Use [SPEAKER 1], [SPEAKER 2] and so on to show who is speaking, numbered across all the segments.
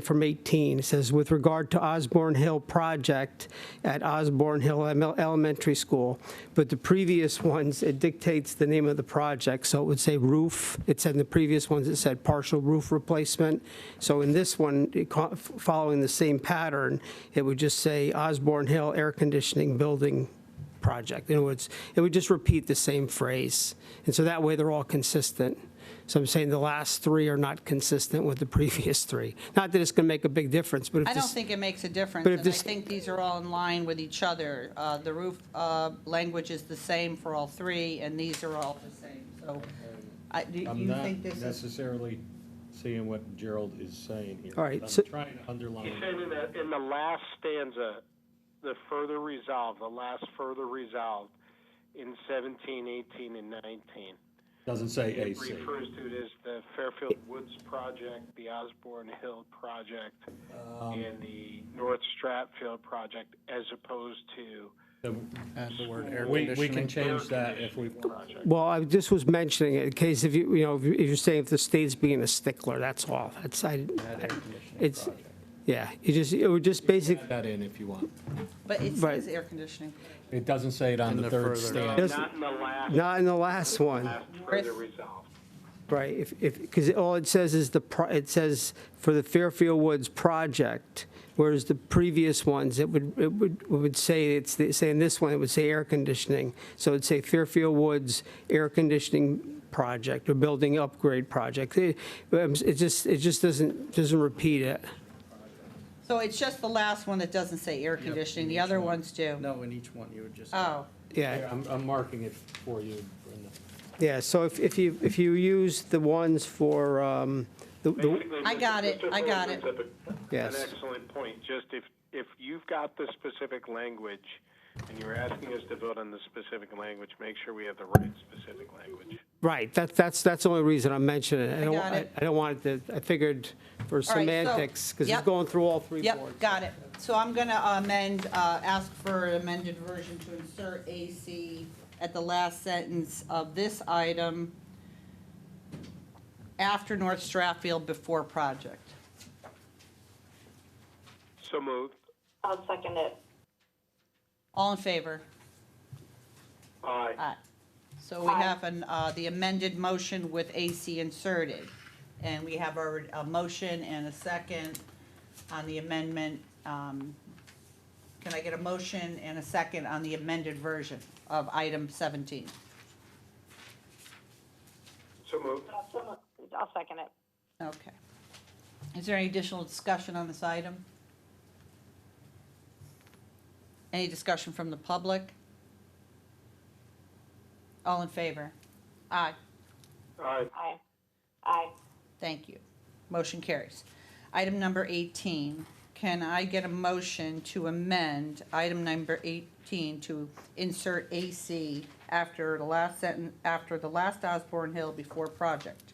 [SPEAKER 1] from 18. It says, "With regard to Osborne Hill project at Osborne Hill Em- Elementary School." But the previous ones, it dictates the name of the project, so it would say roof. It said in the previous ones, it said partial roof replacement. So in this one, it co- following the same pattern, it would just say Osborne Hill Air Conditioning Building Project. In other words, it would just repeat the same phrase. And so that way, they're all consistent. So I'm saying the last three are not consistent with the previous three. Not that it's going to make a big difference, but if
[SPEAKER 2] I
[SPEAKER 1] this...
[SPEAKER 2] don't think it makes a difference,
[SPEAKER 1] But if
[SPEAKER 2] and I
[SPEAKER 1] this-
[SPEAKER 2] think these are all in line with each other. Uh, The roof uh, language is the same for all three, and these are all the same, so I- do
[SPEAKER 3] I'm
[SPEAKER 2] you
[SPEAKER 3] not
[SPEAKER 2] think this is?
[SPEAKER 3] necessarily seeing what Gerald is saying here.
[SPEAKER 1] All right,
[SPEAKER 3] I'm
[SPEAKER 1] so-
[SPEAKER 3] trying to
[SPEAKER 4] He's
[SPEAKER 3] underline.
[SPEAKER 4] saying in the, in the last stanza, the further resolved, the last further resolved in 17, 18, and 19.
[SPEAKER 3] Doesn't say
[SPEAKER 4] It
[SPEAKER 3] AC.
[SPEAKER 4] refers to it as the Fairfield Woods Project, the Osborne Hill Project,
[SPEAKER 1] Um,
[SPEAKER 4] and the North Stratfield Project, as opposed to
[SPEAKER 3] Add the word air conditioning. We can change that if we want.
[SPEAKER 1] Well, I just was mentioning it in case if you, you know, if you- if you're saying if the state's being a stickler, that's all. That's, I, I- it's, yeah, you just, it would just basic,
[SPEAKER 3] Add that in if you want.
[SPEAKER 2] But it
[SPEAKER 1] Right.
[SPEAKER 2] says air conditioning.
[SPEAKER 3] It doesn't say it on the third stand.
[SPEAKER 1] Yes.
[SPEAKER 4] not in the last,
[SPEAKER 1] not in the last one,
[SPEAKER 4] last further resolved.
[SPEAKER 1] right? If, if, because all it says is the, pro- it says for the Fairfield Woods project, whereas the previous ones, it would, it would, it would say, it's, the- say in this one, it would say air conditioning. So it'd say Fairfield Woods Air Conditioning Project or Building Upgrade Project. It um, it just, it just doesn't, doesn't repeat it.
[SPEAKER 2] So it's just the last one that doesn't say air conditioning, the other ones do?
[SPEAKER 5] No, in each one, you would just.
[SPEAKER 2] Oh,
[SPEAKER 1] Yeah.
[SPEAKER 3] Here, I'm, I'm marking it for you, Brenda.
[SPEAKER 1] Yeah, so if, if you, if you use the ones for, um, the- the,
[SPEAKER 4] Basically,
[SPEAKER 2] I
[SPEAKER 4] Mr.
[SPEAKER 2] got it,
[SPEAKER 4] Mr.
[SPEAKER 2] I got
[SPEAKER 4] Feldman's up a- An
[SPEAKER 1] Yes.
[SPEAKER 4] excellent point, just if, if you've got the specific language, and you're asking us to vote on the specific language, make sure we have the right specific language.
[SPEAKER 1] right, that, that's, that's the only reason I'm mentioning it.
[SPEAKER 2] I
[SPEAKER 1] don't-
[SPEAKER 2] got it.
[SPEAKER 1] I don't want it to, I figured for
[SPEAKER 2] so-
[SPEAKER 1] semantics, because it's
[SPEAKER 2] yep.
[SPEAKER 1] going through all three boards.
[SPEAKER 2] yep, got it. So I'm going to amend, uh, ask for an amended version to insert AC at the last sentence of this item after North Stratfield, before project.
[SPEAKER 4] So moved.
[SPEAKER 6] I'll second it.
[SPEAKER 2] All in favor?
[SPEAKER 4] Aye.
[SPEAKER 2] Aye. So we have an, uh, the amended motion with AC inserted. And we have our, a motion and a second on the amendment. um, Can I get a motion and a second on the amended version of item 17?
[SPEAKER 4] So moved.
[SPEAKER 6] I'll se- I'll second it.
[SPEAKER 2] Okay. Is there any additional discussion on this item? Any discussion from the public? All in favor? Aye.
[SPEAKER 4] Aye.
[SPEAKER 6] Aye. Aye.
[SPEAKER 2] Thank you. Motion carries. Item number 18, can I get a motion to amend item number 18 to insert AC after the last sentence, after the last Osborne Hill before project?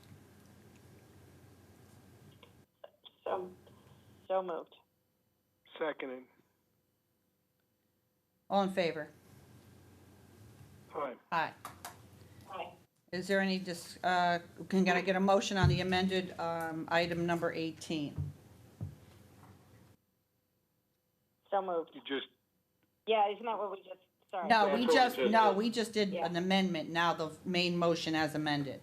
[SPEAKER 6] So, so moved.
[SPEAKER 4] Seconded.
[SPEAKER 2] All in favor?
[SPEAKER 4] Aye.
[SPEAKER 2] Aye.
[SPEAKER 6] Aye.
[SPEAKER 2] Is there any, dis- uh, can can I get a motion on the amended um, item number 18?
[SPEAKER 6] So moved.
[SPEAKER 4] You just,
[SPEAKER 6] Yeah, isn't that what we just, sorry.
[SPEAKER 2] No, we
[SPEAKER 4] That's what we
[SPEAKER 2] just,
[SPEAKER 4] just
[SPEAKER 2] no,
[SPEAKER 4] did.
[SPEAKER 2] we just did
[SPEAKER 6] Yeah.
[SPEAKER 2] an amendment, now the main motion as amended.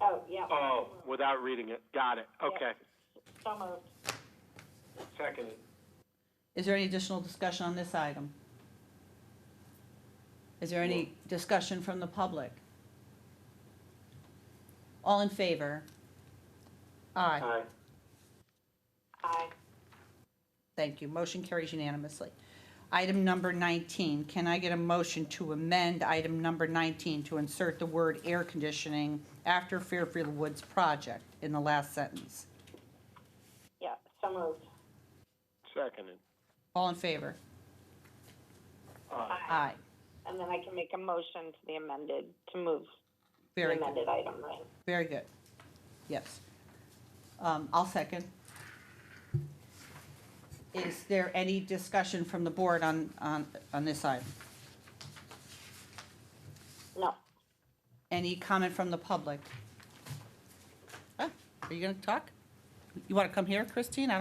[SPEAKER 6] Oh, yeah.
[SPEAKER 4] oh, without reading it. Got it. Okay.
[SPEAKER 6] So moved.
[SPEAKER 4] Seconded.
[SPEAKER 2] Is there any additional discussion on this item? Is there any discussion from the public? All in favor? Aye.
[SPEAKER 4] Aye.
[SPEAKER 6] Aye.
[SPEAKER 2] Thank you. Motion carries unanimously. Item number 19, can I get a motion to amend item number 19 to insert the word air conditioning after Fairfield Woods project in the last sentence?
[SPEAKER 6] Yeah, so moved.
[SPEAKER 4] Seconded.
[SPEAKER 2] All in favor?
[SPEAKER 4] Aye.
[SPEAKER 2] Aye.
[SPEAKER 6] And then I can make a motion to the amended, to move the
[SPEAKER 2] Very good.
[SPEAKER 6] amended item, right?
[SPEAKER 2] Very good. Yes. Um, I'll second. Is there any discussion from the board on, on, on this item?
[SPEAKER 6] No.
[SPEAKER 2] Any comment from the public? Ah, Are you gonna talk? You want to come here, Christine? I